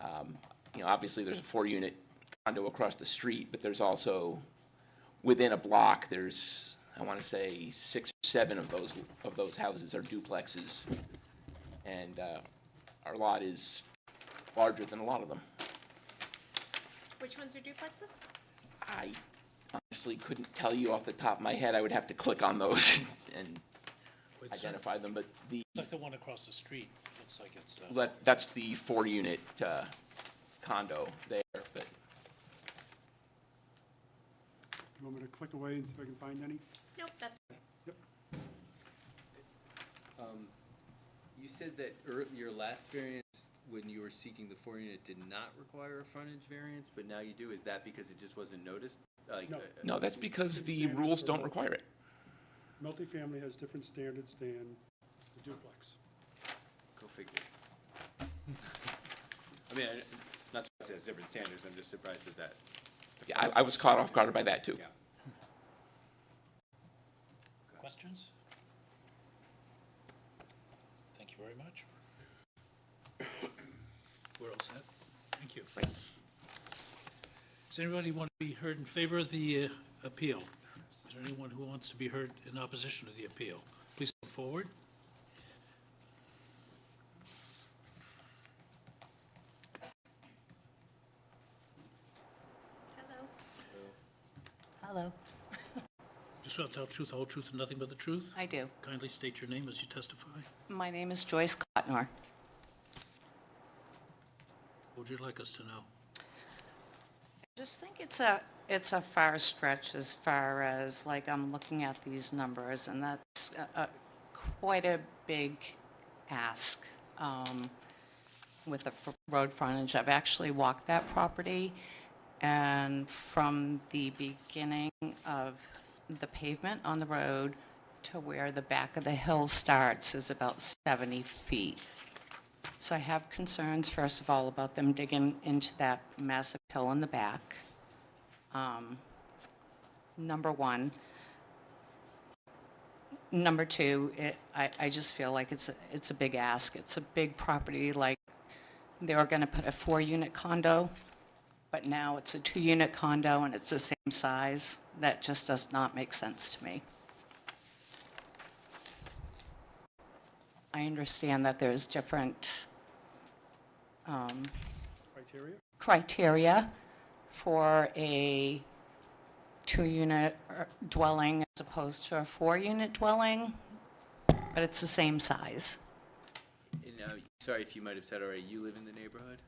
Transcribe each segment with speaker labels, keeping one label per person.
Speaker 1: um, you know, obviously, there's a four-unit condo across the street, but there's also, within a block, there's, I want to say, six, or seven of those, of those houses are duplexes. And uh, our lot is larger than a lot of them.
Speaker 2: Which ones are duplexes?
Speaker 1: I honestly couldn't tell you off the top of my head. I would have to click on those and
Speaker 3: It's like-
Speaker 1: identify them, but the,
Speaker 3: it's like the one across the street, looks like it's, uh,
Speaker 1: that- that's the four-unit uh, condo there, but
Speaker 4: You want me to click away and see if I can find any?
Speaker 2: Nope, that's,
Speaker 5: Um, You said that ear- your last variance, when you were seeking the four unit, did not require a frontage variance, but now you do. Is that because it just wasn't noticed? Like,
Speaker 4: No.
Speaker 5: uh,
Speaker 1: no, that's because
Speaker 4: It's
Speaker 1: the
Speaker 4: standard
Speaker 1: rules
Speaker 4: for
Speaker 1: don't
Speaker 4: both.
Speaker 1: require it.
Speaker 4: Multifamily has different standards than the duplex.
Speaker 5: Go figure. I mean, I- not surprised it has different standards. I'm just surprised at that.
Speaker 1: Yeah, I, I was caught off guard by that, too.
Speaker 5: Yeah.
Speaker 3: questions? Thank you very much. We're all set. Thank you. Does anybody want to be heard in favor of the uh, appeal? Is there anyone who wants to be heard in opposition to the appeal? Please come forward.
Speaker 2: hello.
Speaker 6: Hello.
Speaker 3: Just want to tell truth, whole truth, and nothing but the truth.
Speaker 6: I do.
Speaker 3: Kindly state your name as you testify.
Speaker 6: My name is Joyce Cotnor.
Speaker 3: What would you like us to know?
Speaker 6: Just think it's a, it's a far stretch as far as, like, I'm looking at these numbers, and that's a- a- quite a big ask um, with the fr- road frontage. I've actually walked that property, and from the beginning of the pavement on the road to where the back of the hill starts is about 70 feet. So I have concerns, first of all, about them digging into that massive hill in the back. Um, Number one. Number two, it, I, I just feel like it's, a- it's a big ask. It's a big property, like, they were gonna put a four-unit condo, but now it's a two-unit condo and it's the same size. That just does not make sense to me. I understand that there's different um,
Speaker 4: Criteria?
Speaker 6: criteria for a two-unit er, dwelling as opposed to a four-unit dwelling, but it's the same size.
Speaker 5: And, uh, sorry if you might have said already, you live in the neighborhood?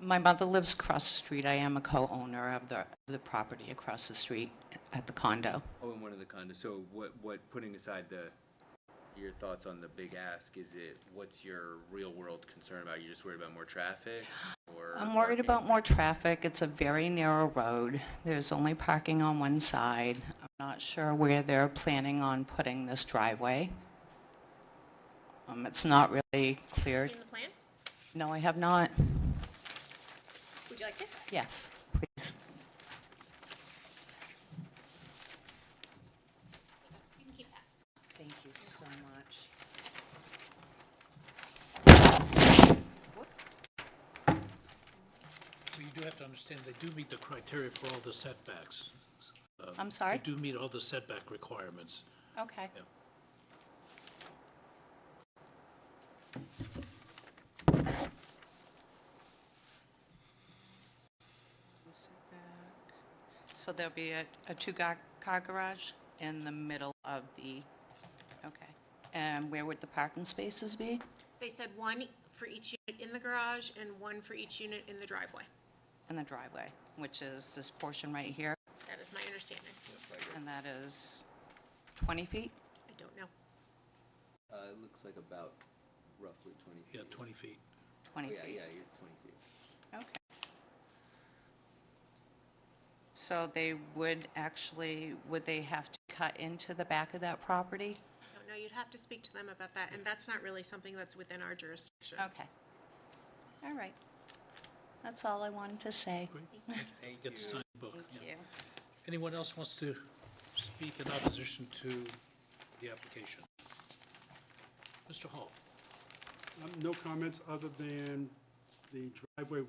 Speaker 6: My mother lives across the street. I am a co-owner of the, the property across the street at the condo.
Speaker 5: Oh, in one of the condos. So what, what, putting aside the, your thoughts on the big ask, is it, what's your real world concern about? You're just worried about more traffic or?
Speaker 6: I'm worried
Speaker 5: parking?
Speaker 6: about more traffic. It's a very narrow road. There's only parking on one side. I'm not sure where they're planning on putting this driveway. Um, It's not really clear.
Speaker 2: Seen the plan?
Speaker 6: No, I have not.
Speaker 2: Would you like to?
Speaker 6: Yes, please.
Speaker 2: You can keep that.
Speaker 6: Thank you so much. Whoops.
Speaker 3: Well, you do have to understand, they do meet the criteria for all the setbacks. Um,
Speaker 6: I'm sorry?
Speaker 3: They do meet all the setback requirements.
Speaker 6: Okay.
Speaker 3: Yeah.
Speaker 6: So there'll be a, a two-car car garage in the middle of the, okay. And where would the parking spaces be?
Speaker 2: They said one for each unit in the garage and one for each unit in the driveway.
Speaker 6: In the driveway, which is this portion right here,
Speaker 2: That is my understanding.
Speaker 6: and that is 20 feet?
Speaker 2: I don't know.
Speaker 5: Uh, it looks like about roughly twenty feet.
Speaker 3: Yeah, 20 feet.
Speaker 6: 20 feet.
Speaker 5: Yeah, yeah, you're twenty feet.
Speaker 6: Okay. So they would actually, would they have to cut into the back of that property?
Speaker 2: I don't know. You'd have to speak to them about that, and that's not really something that's within our jurisdiction.
Speaker 6: Okay. All right. That's all I wanted to say.
Speaker 3: Great. Get the signed book.
Speaker 6: Thank
Speaker 3: yeah.
Speaker 6: you.
Speaker 3: Anyone else wants to speak in opposition to the application? Mr. Hall?
Speaker 4: Um, No comments other than the driveway